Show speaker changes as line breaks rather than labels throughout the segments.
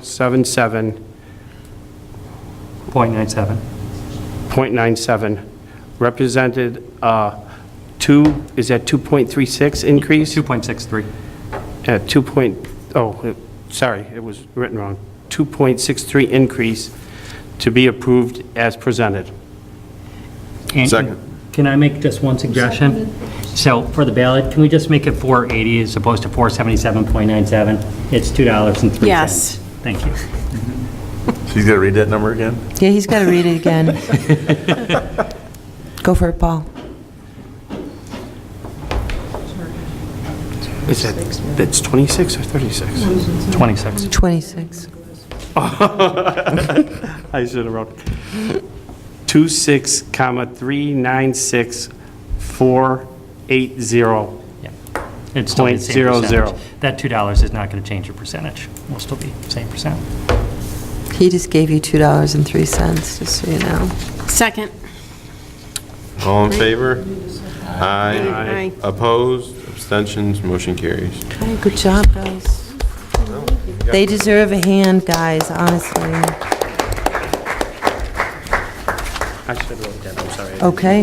6396477.97,
.97.
represented uh, two, is that 2.36 increase?
2.63.
At 2 point, oh, it- sorry, it was written wrong. 2.63 increase to be approved as presented.
And-
Second.
Can I make just one suggestion? So for the ballot, can we just make it 480 as opposed to 477.97? It's $2.03.
Yes.
Thank you.
So you got to read that number again?
Yeah, he's got to read it again. Go for it, Paul.
Is that, that's 26 or 36?
26.
26.
I should have wrote. 26, comma, 396480.
Yeah. It's still the
Point
same
zero zero.
percentage. That $2 is not going to change your percentage. We'll still be same percent.
He just gave you $2.03, just so you know.
Second.
All in favor? Aye.
Aye.
Opposed? Abstentions? Motion carries.
Hey, Good job, guys. They deserve a hand, guys, honestly.
I should have wrote that, I'm sorry.
Okay.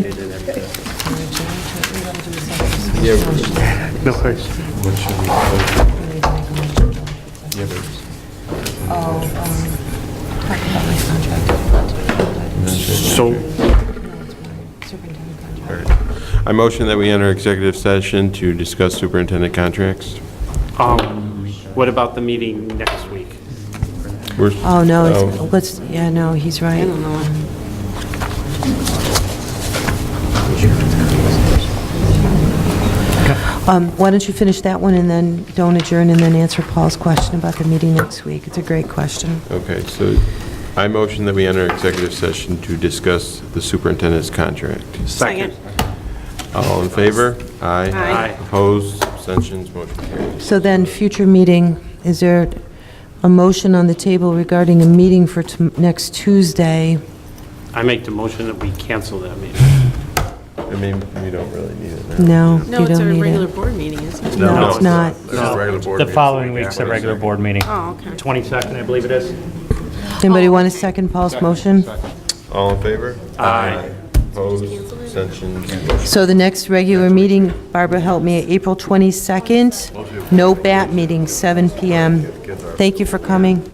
No worries. So,
I motion that we enter executive session to discuss superintendent contracts.
um, what about the meeting next week?
We're-
Oh, no, it's, let's, yeah, no, he's right. Um, Why don't you finish that one and then don't adjourn and then answer Paul's question about the meeting next week? It's a great question.
Okay, so I motion that we enter executive session to discuss the superintendent's contract.
Second.
All in favor? Aye.
Aye.
Opposed? Abstentions? Motion carries.
So then, future meeting, is there a motion on the table regarding a meeting for tom- next Tuesday?
I make the motion that we cancel that meeting.
I mean, we don't really need it now.
No,
No,
you
it's a
don't need
regular
it.
board meeting, isn't it?
No, it's not.
It's just regular board
The
meeting.
following week's the regular board meeting.
Oh, okay.
22nd, I believe it is.
Anybody want to second Paul's motion?
All in favor? Aye. Opposed? Abstentions?
So the next regular meeting, Barbara helped me, April 22nd, no bat meeting, 7 PM. Thank you for coming.